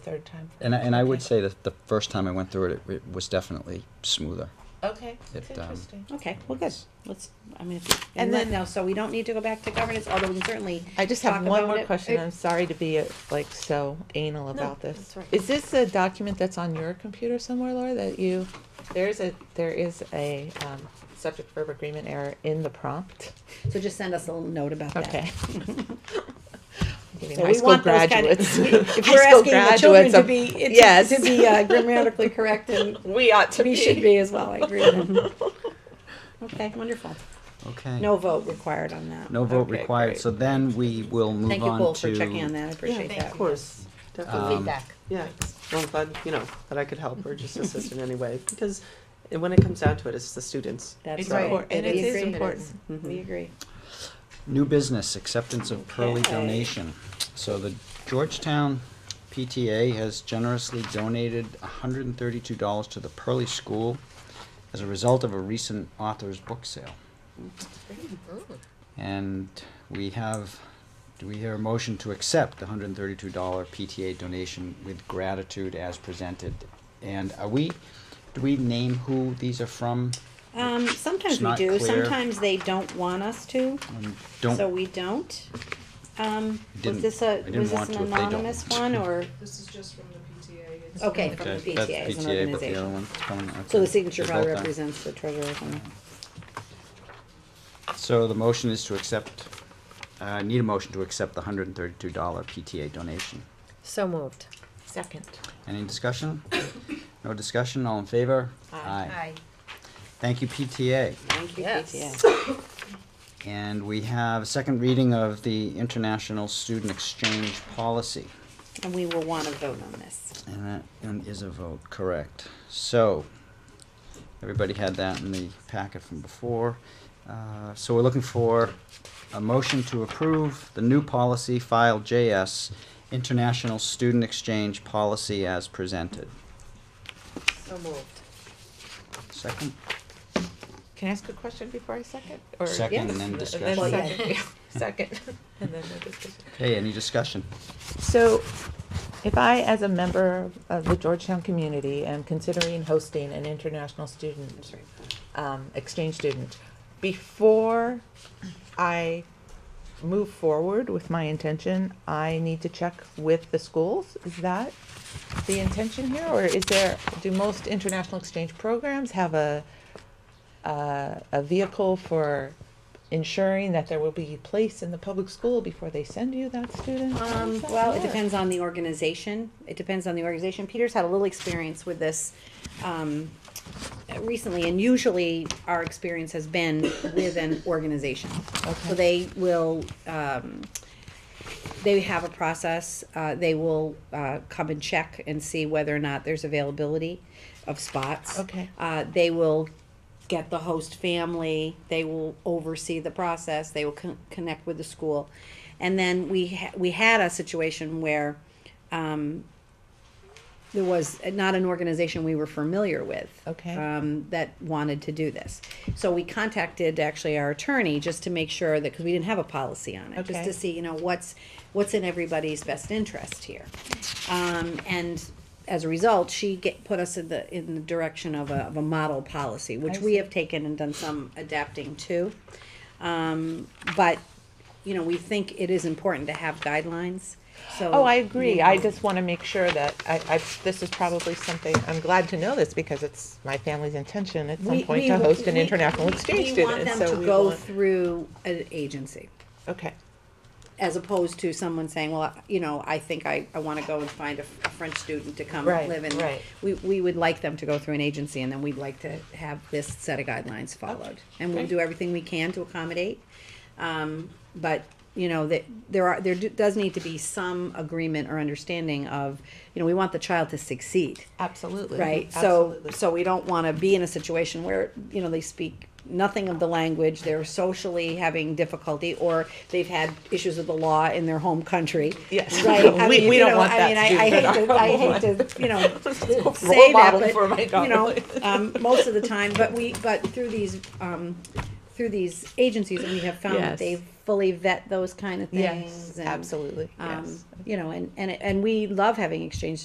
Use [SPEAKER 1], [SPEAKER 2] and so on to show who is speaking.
[SPEAKER 1] third time.
[SPEAKER 2] And I, and I would
[SPEAKER 1] Okay.
[SPEAKER 2] say that the first time I went through it, it, it was definitely smoother.
[SPEAKER 1] Okay,
[SPEAKER 2] It,
[SPEAKER 1] it's
[SPEAKER 2] um,
[SPEAKER 1] interesting.
[SPEAKER 3] Okay, well, good. Let's, I mean, if you-
[SPEAKER 1] And
[SPEAKER 3] and let
[SPEAKER 1] then-
[SPEAKER 3] know, so we don't need to go back to governance, although we can certainly.
[SPEAKER 4] I just have
[SPEAKER 3] talk
[SPEAKER 4] one
[SPEAKER 3] about
[SPEAKER 4] more
[SPEAKER 3] it.
[SPEAKER 4] question.
[SPEAKER 3] It-
[SPEAKER 4] I'm sorry to be uh, like so anal about this.
[SPEAKER 1] that's right.
[SPEAKER 4] Is this a document that's on your computer somewhere, Laura? That you there is a there is a um, subject verb agreement error in the prompt.
[SPEAKER 3] So just send us a little note about that.
[SPEAKER 4] Okay. I'm giving
[SPEAKER 3] So
[SPEAKER 4] high
[SPEAKER 3] we
[SPEAKER 4] school
[SPEAKER 3] want those kind of-
[SPEAKER 4] graduates.
[SPEAKER 3] If
[SPEAKER 4] High
[SPEAKER 3] we're
[SPEAKER 4] school
[SPEAKER 3] asking the children
[SPEAKER 4] graduates
[SPEAKER 3] to
[SPEAKER 4] of-
[SPEAKER 3] be,
[SPEAKER 4] yes.
[SPEAKER 3] to be uh, grammatically correct, and
[SPEAKER 4] we ought to
[SPEAKER 3] we
[SPEAKER 4] be.
[SPEAKER 3] should be as well, I agree with that. Okay, wonderful.
[SPEAKER 2] Okay.
[SPEAKER 3] No vote required on that.
[SPEAKER 2] No vote
[SPEAKER 4] Okay,
[SPEAKER 2] required.
[SPEAKER 4] great.
[SPEAKER 2] So then we will move
[SPEAKER 3] Thank you,
[SPEAKER 2] on
[SPEAKER 3] Cole,
[SPEAKER 2] to
[SPEAKER 3] for checking on that, I appreciate
[SPEAKER 1] Thank
[SPEAKER 3] that.
[SPEAKER 1] you.
[SPEAKER 5] course, definitely.
[SPEAKER 2] Um,
[SPEAKER 3] Feedback.
[SPEAKER 5] Yeah, well, I'm glad, you know, that I could help or just assist in any way, because when it comes down to it, it's the students.
[SPEAKER 3] That's
[SPEAKER 5] It's
[SPEAKER 3] right.
[SPEAKER 5] important,
[SPEAKER 3] It
[SPEAKER 5] and it
[SPEAKER 3] is
[SPEAKER 5] is
[SPEAKER 3] agree.
[SPEAKER 4] important.
[SPEAKER 5] Mhm.
[SPEAKER 3] We agree.
[SPEAKER 2] new business acceptance of Pearly
[SPEAKER 3] Okay.
[SPEAKER 2] donation. So the Georgetown PTA has generously donated $132 to the Pearly School as a result of a recent author's book sale. And we have, do we hear a motion to accept the hundred and thirty-two dollar PTA donation with gratitude as presented? And are we, do we name who these are from?
[SPEAKER 3] Um, sometimes
[SPEAKER 2] It's
[SPEAKER 3] we
[SPEAKER 2] not
[SPEAKER 3] do,
[SPEAKER 2] clear.
[SPEAKER 3] sometimes they don't want us to,
[SPEAKER 2] Um,
[SPEAKER 3] so
[SPEAKER 2] Don't,
[SPEAKER 3] we don't. Um, was
[SPEAKER 2] Didn't-
[SPEAKER 3] this a,
[SPEAKER 2] I didn't
[SPEAKER 3] was this
[SPEAKER 2] want
[SPEAKER 3] an
[SPEAKER 2] to if they don't.
[SPEAKER 3] anonymous one, or,
[SPEAKER 6] This is just from the PTA. It's
[SPEAKER 3] okay, from the
[SPEAKER 2] okay, that's
[SPEAKER 3] PTA as an
[SPEAKER 2] PTA, but the other
[SPEAKER 3] organization.
[SPEAKER 2] one's coming, okay.
[SPEAKER 3] So the signature
[SPEAKER 2] They're
[SPEAKER 3] probably
[SPEAKER 2] both on.
[SPEAKER 3] represents the treasurer or something.
[SPEAKER 2] So the motion is to accept, uh, need a motion to accept the hundred and thirty-two dollar PTA donation.
[SPEAKER 7] So moved.
[SPEAKER 4] Second.
[SPEAKER 2] Any discussion? No discussion, all in favor? Thank you, PTA.
[SPEAKER 3] Thank you,
[SPEAKER 7] Yes.
[SPEAKER 3] PTA.
[SPEAKER 2] And we have second reading of the International Student Exchange Policy.
[SPEAKER 3] And we will want to vote on this.
[SPEAKER 2] And that and is a vote, correct. So, everybody had that in the packet from before. Uh, So we're looking for a motion to approve the new policy file JS, International Student Exchange Policy as presented.
[SPEAKER 7] So moved.
[SPEAKER 2] Second?
[SPEAKER 4] Can I ask a question before I second? Or
[SPEAKER 2] Second and then
[SPEAKER 3] Well,
[SPEAKER 2] discussion.
[SPEAKER 3] yeah.
[SPEAKER 4] second, yeah, second, and then the discussion.
[SPEAKER 2] Okay, any discussion?
[SPEAKER 4] So, if I, as a member of the Georgetown community, am considering hosting an international student, um, exchange student, before I move forward with my intention, I need to check with the schools? Is that the intention here, or is there, do most international exchange programs have a, uh, a vehicle for ensuring that there will be a place in the public school before they send you that student? How
[SPEAKER 3] Um,
[SPEAKER 4] does that
[SPEAKER 3] well, it
[SPEAKER 4] work?
[SPEAKER 3] depends on the organization. It depends on the organization. Peter's had a little experience with this um, recently, and usually our experience has been with an organization. So
[SPEAKER 4] Okay.
[SPEAKER 3] they will, um, they have a process. Uh, they will uh, come and check and see whether or not there's availability of spots.
[SPEAKER 4] Okay.
[SPEAKER 3] Uh, they will get the host family. They will oversee the process. They will con- connect with the school, and then we ha- we had a situation where um, there was not an organization we were familiar with.
[SPEAKER 4] Okay.
[SPEAKER 3] Um, that wanted to do this, so we contacted actually our attorney just to make sure that because we didn't have a policy on it, just
[SPEAKER 4] Okay.
[SPEAKER 3] to see you know what's what's in everybody's best interest here um, and as a result, she get, put us in the, in the direction of a, of a model policy, which
[SPEAKER 4] I
[SPEAKER 3] we
[SPEAKER 4] see.
[SPEAKER 3] have taken and done some adapting to. Um, but, you know, we think it is important to have guidelines, so.
[SPEAKER 4] Oh, I agree. I just want to make sure that I, I, this is probably something, I'm glad to know this because it's my family's intention at some
[SPEAKER 3] We-
[SPEAKER 4] point
[SPEAKER 3] we-
[SPEAKER 4] to host an
[SPEAKER 3] we-
[SPEAKER 4] international
[SPEAKER 3] we-
[SPEAKER 4] exchange
[SPEAKER 3] We want
[SPEAKER 4] student.
[SPEAKER 3] them
[SPEAKER 4] so
[SPEAKER 3] to
[SPEAKER 4] we
[SPEAKER 3] go
[SPEAKER 4] want-
[SPEAKER 3] through an agency,
[SPEAKER 4] Okay,
[SPEAKER 3] as opposed to someone saying, well, you know, I think I, I wanna go and find a a French student to come
[SPEAKER 4] Right,
[SPEAKER 3] live in.
[SPEAKER 4] right.
[SPEAKER 3] We, we would like them to go through an agency and then we'd like to have this set of guidelines followed. And we'll do everything we can to accommodate. Um, but, you know, that, there are, there do- does need to be some agreement or understanding of, you know, we want the child to succeed.
[SPEAKER 4] absolutely.
[SPEAKER 3] Right, so,
[SPEAKER 4] absolutely.
[SPEAKER 3] so we don't wanna be in a situation where, you know, they speak nothing of the language, they're socially having difficulty, or they've had issues with the law in their home country.
[SPEAKER 4] Yes.
[SPEAKER 3] Right, I
[SPEAKER 4] We-
[SPEAKER 3] mean,
[SPEAKER 4] we
[SPEAKER 3] you
[SPEAKER 4] don't
[SPEAKER 3] know,
[SPEAKER 4] want
[SPEAKER 3] I
[SPEAKER 4] that
[SPEAKER 3] mean, I,
[SPEAKER 4] to
[SPEAKER 3] I
[SPEAKER 4] be
[SPEAKER 3] hate to,
[SPEAKER 4] our
[SPEAKER 3] I hate to, you know, say that,
[SPEAKER 4] model
[SPEAKER 3] but,
[SPEAKER 4] for my
[SPEAKER 3] you know, um, most of the time, but we, but through these, um, through these agencies, we have found
[SPEAKER 4] Yes.
[SPEAKER 3] that they fully vet those kind of things.
[SPEAKER 4] Yes,
[SPEAKER 3] and,
[SPEAKER 4] absolutely,
[SPEAKER 3] Um,
[SPEAKER 4] yes.
[SPEAKER 3] you know, and, and, and we love having exchange